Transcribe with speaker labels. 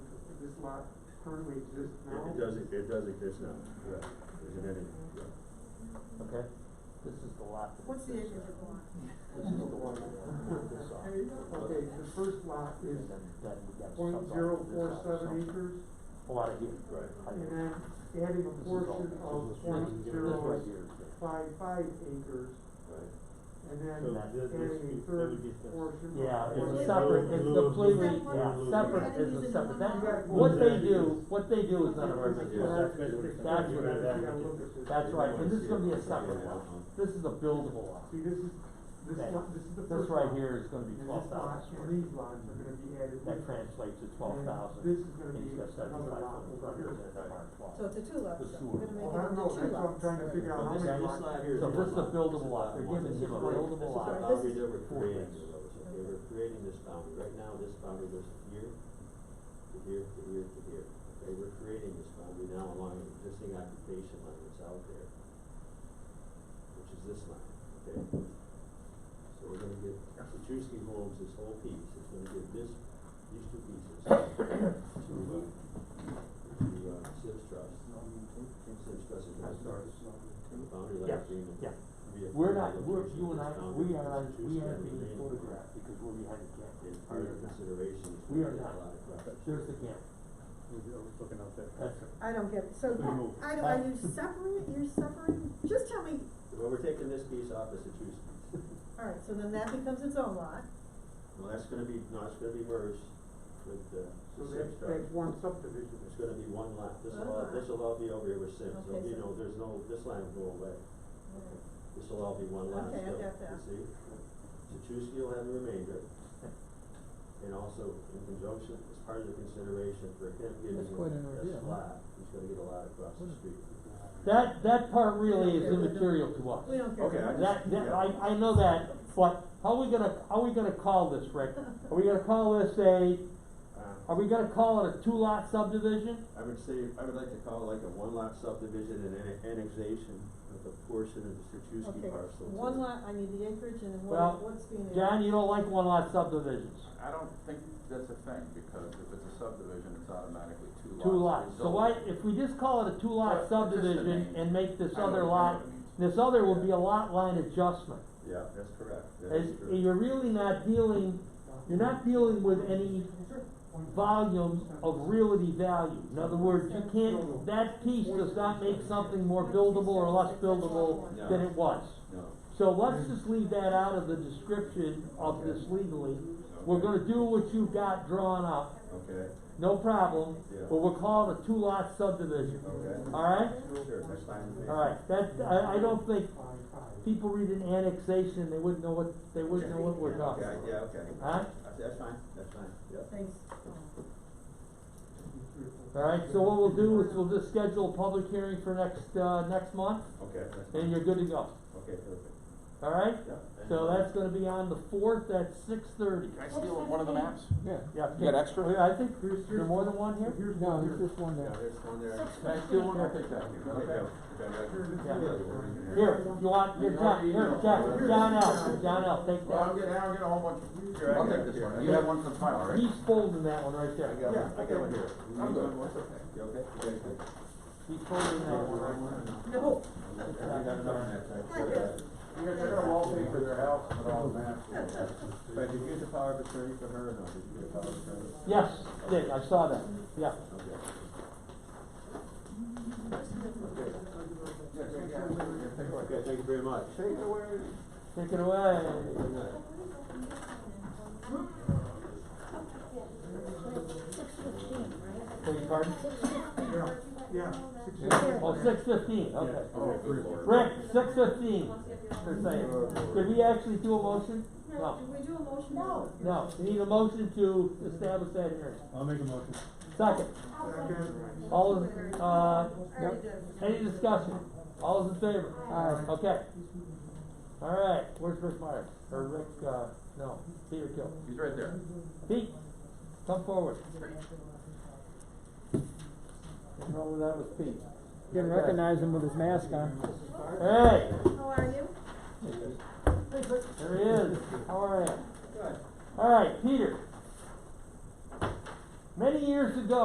Speaker 1: lot currently exist now?
Speaker 2: It doesn't, it does exist now, correct, isn't it?
Speaker 3: okay? This is the lot that
Speaker 4: What's the
Speaker 3: exists
Speaker 4: acreage of
Speaker 3: now.
Speaker 4: the lot?
Speaker 3: This is the one that put this off.
Speaker 4: There you go.
Speaker 1: Okay, the first lot is
Speaker 3: And then, then we gotta sub off
Speaker 1: point zero
Speaker 3: this
Speaker 1: four
Speaker 3: out
Speaker 1: seven
Speaker 3: something.
Speaker 1: acres,
Speaker 3: A lot of here.
Speaker 2: Right.
Speaker 3: Right
Speaker 1: and
Speaker 3: here.
Speaker 1: then adding a
Speaker 3: This is all-
Speaker 1: portion
Speaker 3: this
Speaker 1: of
Speaker 3: is
Speaker 1: point
Speaker 3: this
Speaker 1: zero
Speaker 3: right here is the-
Speaker 1: five five acres,
Speaker 2: Right.
Speaker 1: and then
Speaker 5: So
Speaker 3: that-
Speaker 5: this- this-
Speaker 1: adding a
Speaker 5: that
Speaker 1: third
Speaker 5: would get the-
Speaker 1: portion.
Speaker 3: Yeah,
Speaker 5: Yeah,
Speaker 3: it's
Speaker 5: it's
Speaker 3: a
Speaker 5: a
Speaker 3: separate,
Speaker 5: little-
Speaker 3: it's
Speaker 5: little-
Speaker 3: completely,
Speaker 4: little-
Speaker 3: yeah,
Speaker 5: little-
Speaker 3: separate,
Speaker 4: little-
Speaker 3: it's a
Speaker 4: little-
Speaker 3: separate, that,
Speaker 1: little-
Speaker 3: what they
Speaker 5: little-
Speaker 3: do, what they do is none of our
Speaker 2: Yeah,
Speaker 3: business.
Speaker 5: that's basically-
Speaker 3: That's what
Speaker 1: Yeah,
Speaker 3: it
Speaker 1: yeah,
Speaker 3: is.
Speaker 1: look at this.
Speaker 3: That's right, and this is gonna be a
Speaker 2: Yeah,
Speaker 3: separate
Speaker 2: yeah,
Speaker 3: lot,
Speaker 2: uh-huh.
Speaker 3: this is a buildable lot,
Speaker 1: See, this is, this
Speaker 3: Okay.
Speaker 1: lot, this is the first lot.
Speaker 3: this right here is gonna
Speaker 1: And
Speaker 3: be
Speaker 1: this lot,
Speaker 3: twelve thousand
Speaker 1: and these lots are gonna be added.
Speaker 3: That
Speaker 1: with-
Speaker 3: translates to twelve thousand.
Speaker 1: this is gonna be another
Speaker 3: And he's got
Speaker 1: lot
Speaker 3: seventy-five foot in
Speaker 1: over
Speaker 3: front of
Speaker 1: here.
Speaker 3: it, and I'm on twelve.
Speaker 4: So it's a two lot,
Speaker 3: The
Speaker 4: we're
Speaker 3: sewer.
Speaker 4: gonna
Speaker 1: Well,
Speaker 4: make
Speaker 1: I
Speaker 4: it
Speaker 1: don't
Speaker 4: into
Speaker 1: know,
Speaker 4: two
Speaker 1: that's what I'm
Speaker 4: lots.
Speaker 1: trying to figure out, how
Speaker 2: But this,
Speaker 1: many
Speaker 2: this slide
Speaker 1: lots.
Speaker 2: here is.
Speaker 3: So
Speaker 2: your
Speaker 3: this is a
Speaker 2: lot. This
Speaker 3: buildable
Speaker 2: is
Speaker 3: lot. They're
Speaker 2: one.
Speaker 3: giving
Speaker 2: This
Speaker 3: him a
Speaker 2: is right.
Speaker 3: buildable
Speaker 2: This is
Speaker 3: lot.
Speaker 2: a boundary that we're creating, okay, we're creating this boundary, right now, this boundary goes here, to here, to here, to here, okay, we're creating this boundary now along an existing occupation line that's out there, which is this line, okay? So we're gonna get, Petruski Homes, this whole piece, is gonna give this, these two pieces to, uh, to, uh, Sips Trust, Sips Trust is gonna start this boundary line
Speaker 3: Yeah,
Speaker 2: agreement.
Speaker 3: yeah.
Speaker 2: Be a
Speaker 3: We're
Speaker 2: further
Speaker 3: not, we're,
Speaker 2: location
Speaker 3: you
Speaker 2: of
Speaker 3: and I,
Speaker 2: this boundary
Speaker 3: we
Speaker 2: that
Speaker 3: are,
Speaker 2: Petruski
Speaker 3: we are
Speaker 2: and
Speaker 3: being
Speaker 2: Lorraine
Speaker 3: photographed because we're behind the
Speaker 2: is
Speaker 3: camera.
Speaker 2: part of the consideration.
Speaker 3: We are not. There's the
Speaker 2: game.
Speaker 3: camera,
Speaker 5: looking out there.
Speaker 3: that's,
Speaker 4: I don't get it, so,
Speaker 5: We move.
Speaker 4: I don't, are you separating, you're separating, just tell me,
Speaker 2: Well, we're taking this piece off as a two piece.
Speaker 4: alright, so then that becomes its own lot,
Speaker 2: Well, that's gonna be, no, it's gonna be merged with the
Speaker 1: So
Speaker 2: Sims
Speaker 1: that's,
Speaker 2: truck.
Speaker 1: that's one subdivision.
Speaker 2: It's gonna be one lot. This'll all,
Speaker 4: Alright.
Speaker 2: this'll all be over here with Sims. So,
Speaker 4: Okay,
Speaker 2: you
Speaker 4: so-
Speaker 2: know, there's no, this line will go away. This'll all be one lot
Speaker 4: Okay, I
Speaker 2: still,
Speaker 4: got that.
Speaker 2: you see? Petruski will have the remainder. And also in conjunction, as part of the consideration for him getting
Speaker 6: That's quite an idea,
Speaker 2: this
Speaker 6: huh?
Speaker 2: lot, he's gonna get a lot across the street.
Speaker 3: that, that part
Speaker 4: We
Speaker 3: really is
Speaker 4: don't care.
Speaker 3: immaterial to us.
Speaker 4: we don't care.
Speaker 2: Okay, I just-
Speaker 3: That, that,
Speaker 2: yeah.
Speaker 3: I, I know that, but how are we gonna, how are we gonna call this, Rick? Are we gonna call this a,
Speaker 2: Uh,
Speaker 3: are we gonna call it a two-lot subdivision?
Speaker 2: I would say, I would like to call it like a one lot subdivision and an annexation of a portion of the Sertuski
Speaker 4: Okay,
Speaker 2: parcel. to
Speaker 4: one
Speaker 2: the-
Speaker 4: lot, I need the acreage, and then
Speaker 3: Well,
Speaker 4: what, what's being.
Speaker 3: John, you don't like one-lot subdivisions,
Speaker 7: I don't think that's a thing, because if it's a subdivision, it's automatically two lots.
Speaker 3: two lots. So why,
Speaker 7: It's
Speaker 3: if we just call it a two-lot
Speaker 7: Well, it's just a
Speaker 3: subdivision
Speaker 7: name.
Speaker 3: and make this
Speaker 7: I know
Speaker 3: other lot,
Speaker 7: what- I know what it means.
Speaker 3: this other would be a lot line adjustment.
Speaker 2: Yeah, that's correct. That
Speaker 3: It's,
Speaker 2: is true.
Speaker 3: you're really not dealing, you're not dealing with any volume of realty value. In other words, you can't, that piece does not make something more buildable or less buildable than it was.
Speaker 2: No,
Speaker 3: So let's just leave that out of the description of this legally. We're gonna do what you've got drawn up,
Speaker 2: okay,
Speaker 3: no problem,
Speaker 2: yeah,
Speaker 3: but we're calling a two-lot subdivision,
Speaker 2: okay.
Speaker 3: alright?
Speaker 2: Sure, that's fine with me.
Speaker 3: Alright, that, I, I don't think
Speaker 1: Five, five.
Speaker 3: people read an annexation, they wouldn't know what, they wouldn't know what we're talking
Speaker 2: Okay, yeah,
Speaker 3: about.
Speaker 2: okay.
Speaker 3: Huh?
Speaker 2: That's- That's fine, that's fine, yeah.
Speaker 4: Thanks.
Speaker 3: Alright, so what we'll do is we'll just schedule a public hearing for next, uh, next month,
Speaker 2: Okay, that's fine.
Speaker 3: and you're good to go,
Speaker 2: Okay, perfect.
Speaker 3: alright?
Speaker 2: Yeah.
Speaker 3: So that's gonna be on the fourth at six thirty.
Speaker 7: Can I steal one of the maps?
Speaker 6: Yeah,
Speaker 3: Yeah,
Speaker 7: You got extra?
Speaker 3: okay, I think, there's there more than one here?
Speaker 1: Here's
Speaker 6: no,
Speaker 1: one
Speaker 6: there's
Speaker 1: here.
Speaker 6: just one
Speaker 2: Yeah,
Speaker 6: there.
Speaker 2: there's one there.
Speaker 7: Can I steal one? I'll take that.
Speaker 2: Okay, go.
Speaker 1: Here's this
Speaker 3: Yeah.
Speaker 1: one.
Speaker 3: Here, you want, here, John, here, John, John L., John L., take
Speaker 7: Well, I'm
Speaker 3: that.
Speaker 7: getting, I'm getting a whole bunch.
Speaker 2: Here, I
Speaker 7: I'll
Speaker 2: got
Speaker 7: take
Speaker 2: it
Speaker 7: this
Speaker 2: here.
Speaker 7: one. You have one for the final, right?
Speaker 3: He's folding that one right
Speaker 2: I
Speaker 3: there.
Speaker 2: got one, I got one here.
Speaker 7: I'm good.
Speaker 2: What's okay? You okay? You guys good?
Speaker 3: He's folding that one right there.
Speaker 4: No,
Speaker 2: I got another map, I got that.
Speaker 7: You're gonna wallpaper their house with all the maps.
Speaker 2: Fred, did you get the power of attorney for her or no? Did you get a power of attorney?
Speaker 3: Yes, Dick, I saw that, yeah.
Speaker 2: Okay.
Speaker 7: Yeah, yeah, yeah.
Speaker 2: Okay, thank you very much. Take it away.
Speaker 3: Take it away.
Speaker 2: Good night.
Speaker 3: Beg your pardon?
Speaker 1: Yeah, six,
Speaker 3: Oh, six fifteen, okay.
Speaker 7: Oh, good lord.
Speaker 3: Rick, six fifteen, for saying. Did we actually do a motion? No,
Speaker 4: did we do a motion? No.
Speaker 3: no, we need a motion to establish that hearing.
Speaker 5: I'll make a motion.
Speaker 3: Second,
Speaker 1: second.
Speaker 3: all, in- uh,
Speaker 4: I already did.
Speaker 3: any discussion? All is in favor?
Speaker 6: Aye.
Speaker 3: Okay. All right, where's Rick Myers? Or Rick, uh, no, Peter Kill.
Speaker 7: He's right there.
Speaker 3: Pete, come forward. What's wrong with that with Pete?
Speaker 6: You can recognize him with his mask on.
Speaker 3: Hey,
Speaker 4: How are you?
Speaker 3: there he is. How are you? All right, Peter. Many years ago,